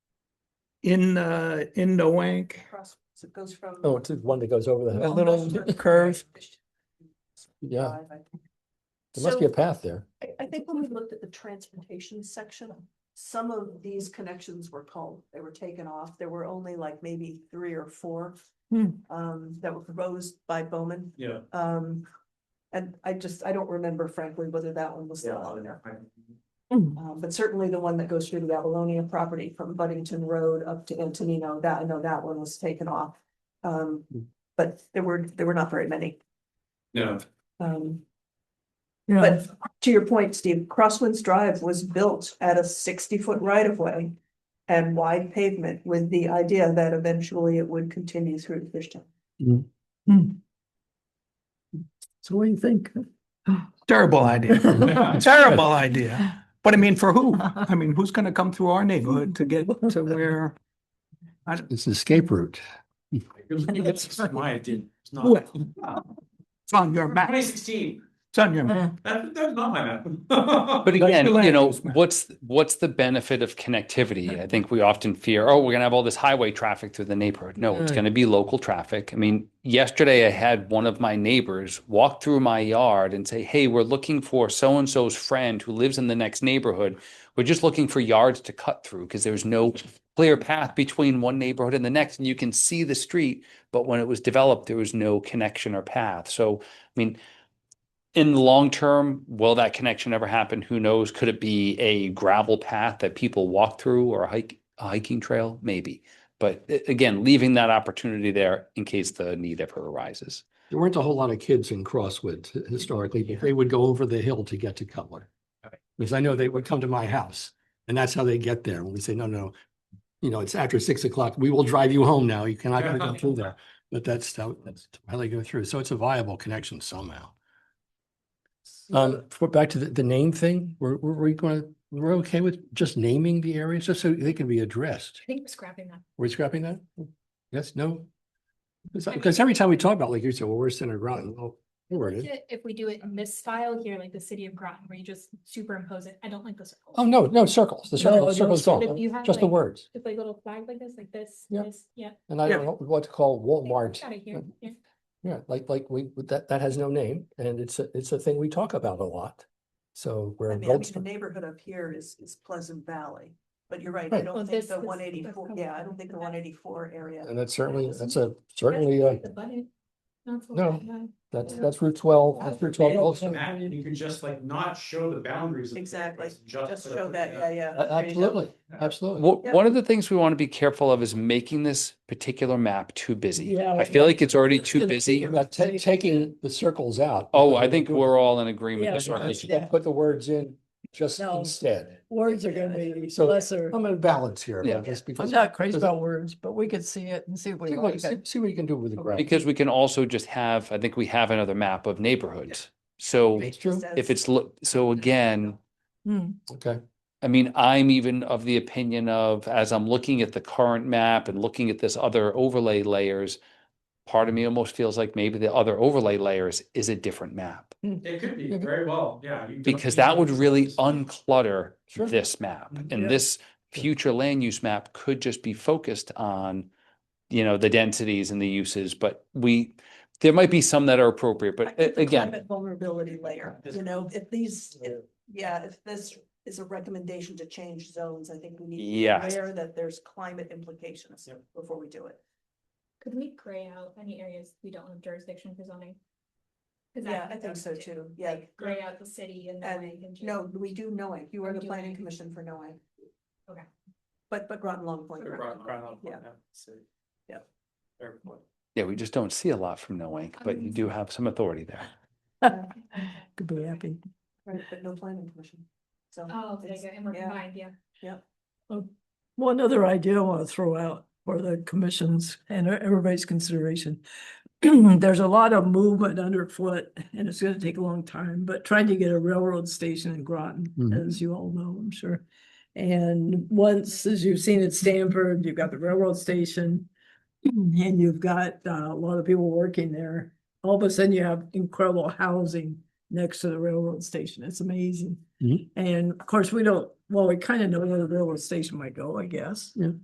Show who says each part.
Speaker 1: in, uh, in the wank.
Speaker 2: Cross, it goes from.
Speaker 3: Oh, it's the one that goes over the,
Speaker 1: A
Speaker 3: hill.
Speaker 1: little curve.
Speaker 3: yeah,
Speaker 2: Five, I think.
Speaker 3: there must be a
Speaker 2: So-
Speaker 3: path there.
Speaker 2: I, I think when we looked at the transportation section, some of these connections were called, they were taken off. There were only like maybe three or four.
Speaker 1: Hmm.
Speaker 2: Um, that were proposed by Bowman.
Speaker 4: Yeah.
Speaker 2: Um, and I just, I don't remember frankly whether that one was still on there. Um, but certainly the one that goes through the Avalonia property from Buddington Road up to Antonino, that, I know that one was taken off. Um,
Speaker 3: Hmm.
Speaker 2: but there were, there were not very many.
Speaker 4: No,
Speaker 2: Um,
Speaker 1: Yeah,
Speaker 2: But to your point, Steve, Crosswinds Drive was built at a sixty-foot right-of-way and wide pavement with the idea that eventually it would continue through to Fishtown.
Speaker 3: So what do you think?
Speaker 1: terrible idea, terrible idea. But I mean, for who? I mean, who's gonna come through our neighborhood to get to where?
Speaker 3: It's an escape route.
Speaker 4: that's why I did, it's not.
Speaker 1: Well, It's on your map,
Speaker 4: Twenty
Speaker 1: it's
Speaker 4: sixteen,
Speaker 1: on your map.
Speaker 4: that, that's not my map.
Speaker 5: But
Speaker 1: That's
Speaker 5: again,
Speaker 1: the
Speaker 5: you
Speaker 1: land
Speaker 5: know,
Speaker 1: use map.
Speaker 5: what's, what's the benefit of connectivity? I think we often fear, oh, we're gonna have all this highway traffic through the neighborhood. No, it's
Speaker 3: Mm.
Speaker 5: gonna be local traffic. I mean, yesterday I had one of my neighbors walk through my yard and say, hey, we're looking for so-and-so's friend who lives in the next neighborhood. We're just looking for yards to cut through because there's no clear path between one neighborhood and the next. And you can see the street, but when it was developed, there was no connection or path. So, I mean, in the long term, will that connection ever happen? Who knows? Could it be a gravel path that people walk through or a hike, a hiking trail? Maybe. But a- again, leaving that opportunity there in case the need ever arises.
Speaker 3: There weren't a whole lot of kids in Crosswoods historically, but they would go over the hill to get to Cutler. Because I know they would come to my house and that's how they get there. And we say, no, no, you know, it's after six o'clock. We will drive you home now. You cannot go through there. But that's how, that's how they go through. So it's a viable connection somehow. Um, for, back to the, the name thing, we're, we're, we're gonna, we're okay with just naming the areas, just so they can be addressed.
Speaker 6: I think we're scrapping that.
Speaker 3: We're scrapping that? Yes, no? Because every time we talk about, like you said, well, we're Center Groton, well, there it is.
Speaker 6: If we do it in this style here, like the city of Groton, where you just superimpose it, I don't like the circle.
Speaker 3: Oh, no, no, circles, the
Speaker 6: No,
Speaker 3: circles,
Speaker 6: those
Speaker 3: circles
Speaker 6: sort of- you
Speaker 3: gone,
Speaker 6: have
Speaker 3: just the
Speaker 6: like-
Speaker 3: words.
Speaker 6: Just like little flag like this, like this,
Speaker 3: Yeah.
Speaker 6: this, yeah.
Speaker 3: And I
Speaker 1: Yeah.
Speaker 3: don't know what to call Walmart.
Speaker 6: Got it here, yeah.
Speaker 3: Yeah, like, like we, that, that has no name and it's, a it's a thing we talk about a lot. So
Speaker 2: I
Speaker 3: we're.
Speaker 2: mean, I mean,
Speaker 3: adults-
Speaker 2: the neighborhood up here is, is Pleasant Valley, but you're right, I
Speaker 3: Right.
Speaker 6: Well,
Speaker 2: don't
Speaker 6: this-
Speaker 2: think the
Speaker 6: this-
Speaker 2: one eighty-four,
Speaker 6: this-
Speaker 2: yeah, I don't think the one eighty-four area.
Speaker 3: And that's certainly,
Speaker 6: Yeah.
Speaker 3: that's a,
Speaker 6: That's
Speaker 3: certainly, uh,
Speaker 6: the button. That's what
Speaker 3: No.
Speaker 6: I have.
Speaker 3: that's, that's Route twelve, that's Route twelve also.
Speaker 4: Map, you can just like not show the boundaries. of the
Speaker 2: Exactly,
Speaker 4: place,
Speaker 2: just
Speaker 4: put
Speaker 2: show
Speaker 4: up
Speaker 2: that,
Speaker 4: the-
Speaker 2: yeah, yeah. there
Speaker 3: A-
Speaker 2: you go.
Speaker 3: Absolutely, absolutely.
Speaker 5: Wha-
Speaker 2: Yeah.
Speaker 5: One of the things we want to be careful of is making this particular map too busy.
Speaker 3: Yeah,
Speaker 5: I feel like it's already too
Speaker 3: It's
Speaker 5: busy.
Speaker 3: About ta- taking the circles out.
Speaker 5: Oh, I think we're all in agreement.
Speaker 7: Yeah,
Speaker 5: with circles.
Speaker 7: yeah.
Speaker 3: Put the words in just
Speaker 7: No.
Speaker 3: instead.
Speaker 7: Words are gonna be
Speaker 3: So-
Speaker 7: lesser.
Speaker 3: I'm in balance here.
Speaker 5: Yeah.
Speaker 3: just because-
Speaker 7: I'm not crazy
Speaker 3: because-
Speaker 7: about words, but we could see it and see what
Speaker 3: See
Speaker 7: we
Speaker 3: what,
Speaker 7: like.
Speaker 3: see see what you can do with the graph.
Speaker 5: Because we can also just have, I think we have another map of neighborhoods. So
Speaker 3: That's true.
Speaker 5: if it's, lo- so again,
Speaker 3: Okay.
Speaker 5: I mean, I'm even of the opinion of, as I'm looking at the current map and looking at this other overlay layers, part of me almost feels like maybe the other overlay layers is a different map.
Speaker 4: It could be very well, yeah. you can-
Speaker 5: Mm-hmm. Because that would really unclutter
Speaker 3: Sure.
Speaker 5: this map.
Speaker 2: Mm,
Speaker 4: Mhm.
Speaker 5: And this future land use map could just be focused on, you know, the densities and the uses, but we, there might be some that are appropriate,
Speaker 2: I
Speaker 5: but
Speaker 2: think
Speaker 5: a-
Speaker 2: the
Speaker 5: again,
Speaker 2: climate Vulnerability layer, you know, if these, if- yeah, if this is a recommendation to change zones, I think we need. to be
Speaker 5: Yes.
Speaker 2: Aware that there's climate implications
Speaker 4: Yep.
Speaker 2: before we do it.
Speaker 6: Could we gray out any areas we don't have jurisdiction for zoning? 'Cause that
Speaker 2: Yeah, I
Speaker 6: could
Speaker 2: think
Speaker 6: be
Speaker 2: so
Speaker 6: done
Speaker 2: too, yeah.
Speaker 6: Like gray out the city and then.
Speaker 2: And no, we do NOAA, you are
Speaker 6: We
Speaker 2: the
Speaker 6: do
Speaker 2: planning
Speaker 6: NOAA.
Speaker 2: commission for NOAA.
Speaker 6: Okay.
Speaker 2: But, but Groton Long Point.
Speaker 4: Sort of rock- rock-
Speaker 2: Yeah.
Speaker 4: so-
Speaker 2: Yep.
Speaker 4: Fair point.
Speaker 5: yeah, we just don't see a lot from Noank, but you
Speaker 2: Um,
Speaker 5: do have some authority there.
Speaker 7: Could be happy.
Speaker 2: Right, but no planning commission, so.
Speaker 6: Oh, there you
Speaker 2: it's-
Speaker 6: go, and we're
Speaker 2: yeah.
Speaker 6: combined, yeah.
Speaker 7: One other idea I want to throw out for the commissions and e-, everybody's consideration. There's a lot of movement underfoot and it's gonna take a long time, but trying to get a railroad station in Groton,
Speaker 3: Mhm.
Speaker 7: as you all know, I'm sure. And once, as you've seen at Stanford, you've got the railroad station. And you've got uh, a lot of people working there. All of a sudden you have incredible housing next to the railroad station. It's amazing.
Speaker 3: Mhm.
Speaker 7: And of course, we don't, well, we kind of know where the railroad station might go, I guess.
Speaker 3: Yeah.